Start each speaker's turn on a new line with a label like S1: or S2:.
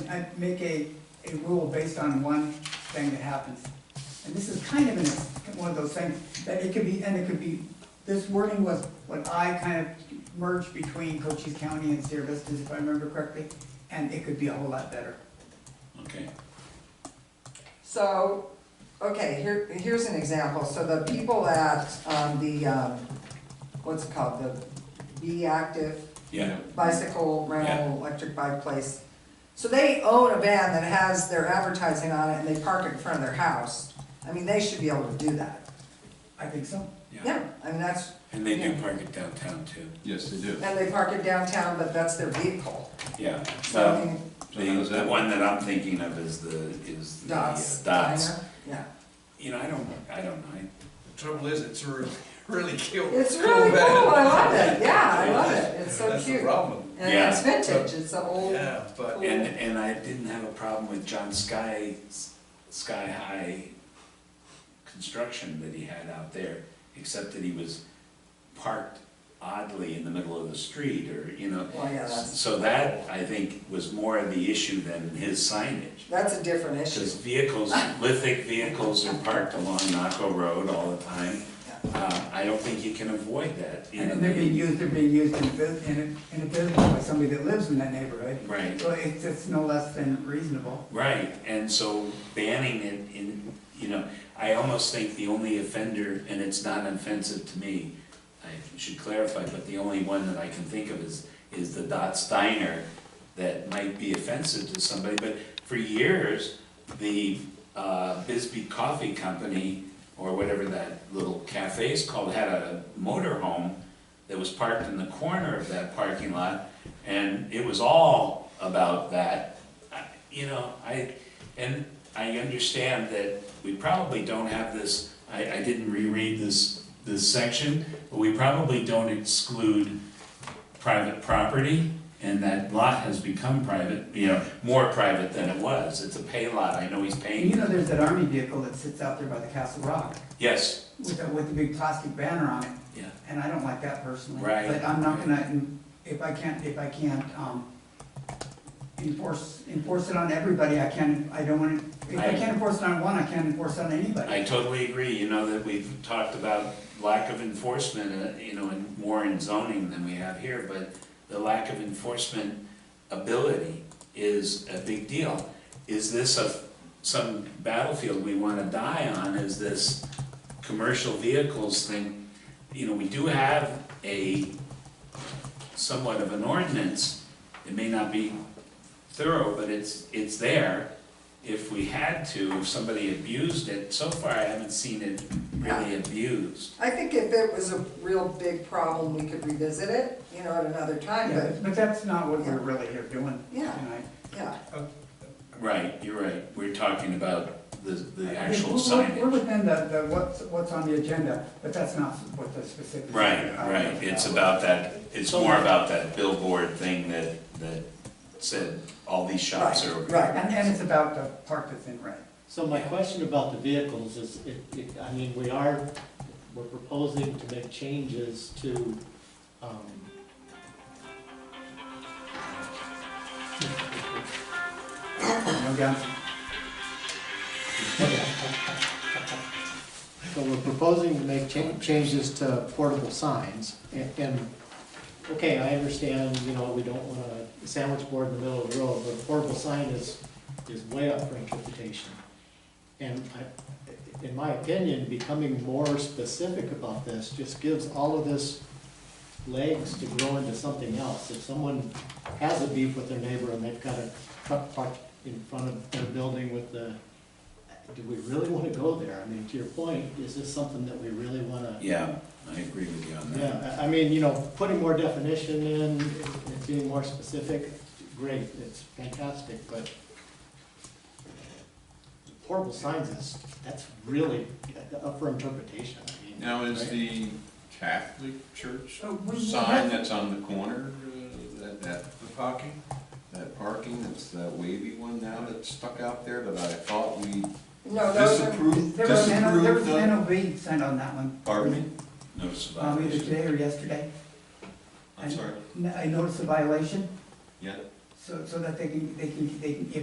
S1: can't make a, a rule based on one thing that happens. And this is kind of an- one of those things, that it could be, and it could be, this wording was what I kind of merged between Cochise County and Sierra Vistas, if I remember correctly, and it could be a whole lot better.
S2: Okay,
S3: So, okay, here, here's an example, so the people at, um, the, um, what's it called, the Be Active
S2: yeah,
S3: bicycle rental, electric bike place. So they own a van that has their advertising on it and they park it in front of their house. I mean, they should be able to do that.
S1: I think so.
S2: yeah.
S3: Yeah, I mean, that's,
S2: And they do
S3: Yeah.
S2: park it downtown too,
S4: Yes, they do.
S3: and they park it downtown, but that's their vehicle.
S2: yeah.
S3: So I
S2: So
S3: mean,
S4: So
S2: the,
S4: how's
S2: the
S4: that?
S2: one that I'm thinking of is the, is the uh,
S3: Dots.
S2: dots.
S3: diner, Yeah.
S2: You know, I don't, I don't know.
S5: The trouble is, it's really, really cute.
S3: It's really cool,
S5: band.
S3: I love it, yeah, I love it, it's so
S5: That's the
S3: cute.
S5: problem.
S3: And
S2: Yeah.
S3: it's vintage, it's an old,
S5: Yeah, but
S3: Cool.
S2: And, and I didn't have a problem with John Sky, Sky High construction that he had out there, except that he was parked oddly in the middle of the street or, you know.
S3: well, yeah, that's,
S2: So that, I think, was more of the issue than his signage.
S3: that's a different issue.
S2: Because vehicles, lithic vehicles are parked along Naco Road all the time. Uh, I don't think you can avoid that. you know,
S1: And they're being used, they're being used in a, bus- in a, in a business by somebody that lives in that neighborhood.
S2: Right,
S1: So it's, it's no less than reasonable.
S2: right, and so banning it in, you know, I almost think the only offender, and it's not offensive to me, I should clarify, but the only one that I can think of is, is the Dot Steiner that might be offensive to somebody, but for years, the uh, Bisbee Coffee Company, or whatever that little cafe is called, had a motor home that was parked in the corner of that parking lot, and it was all about that. I- You know, I, and I understand that we probably don't have this, I, I didn't reread this, this section, but we probably don't exclude private property, and that lot has become private, you know, more private than it was. It's a pay lot, I know he's
S1: And you
S2: paying,
S1: know, there's that army vehicle that sits out there by the Castle Rock
S2: yes,
S1: with, a- with the big plastic banner on it.
S2: yeah,
S1: And I don't like that personally.
S2: Right.
S1: But I'm not gonna, if I can't, if I can't, um, enforce, enforce it on everybody, I can't, I don't wanna, if I
S2: I-
S1: can't enforce it on one, I can't enforce it on anybody.
S2: I totally agree, you know, that we've talked about lack of enforcement, uh, you know, and more in zoning than we have here, but the lack of enforcement ability is a big deal. Is this a, some battlefield we wanna die on, is this commercial vehicles thing? You know, we do have a somewhat of an ordinance, it may not be thorough, but it's, it's there. If we had to, if somebody abused it, so far I haven't seen it really abused.
S3: I think if it was a real big problem, we could revisit it, you know, at another time,
S1: Yeah,
S3: but,
S1: But that's not what we're really here doing
S3: Yeah.
S1: tonight.
S3: yeah.
S2: Right, you're right, we're talking about the, the actual
S1: We're- we're- We're
S2: signage.
S1: within the, the, what's, what's on the agenda, but that's not what the specific.
S2: Right, right, it's about that, it's more about that billboard thing that, that said all these shops are.
S3: Right, right.
S1: And, and it's about the part that's in red.
S6: So my question about the vehicles is, it, it, I mean, we are, we're proposing to make changes to, um,
S1: No guns.
S6: so we're proposing to make cha- changes to portable signs and, and, okay, I understand, you know, we don't want a sandwich board in the middle of the road, but a portable sign is, is way up for interpretation. And I, in my opinion, becoming more specific about this just gives all of this legs to grow into something else. If someone has a beef with their neighbor and they've got a truck parked in front of their building with the, do we really wanna go there? I mean, to your point, is this something that we really wanna?
S2: Yeah, I agree with you on that.
S6: Yeah, I, I mean, you know, putting more definition in, and being more specific, great, it's fantastic, but portable signs is, that's really up for interpretation, I mean.
S4: Now, is
S6: right?
S4: the Catholic church
S1: Oh, we-
S4: sign that's on the corner, uh, that, that, the parking? That parking, that's that wavy one now that's stuck out there that I thought we
S3: No, Oh, those are,
S4: disapproved,
S1: There was an, N- there was
S4: disapproved
S1: an
S4: of?
S1: NOV signed on that one.
S4: Pardon me?
S2: Notice of
S1: Um, either
S2: violation.
S1: today or yesterday.
S4: I'm sorry,
S1: N- I noticed a violation,
S4: yeah?
S1: so, so that they can, they can, they can, if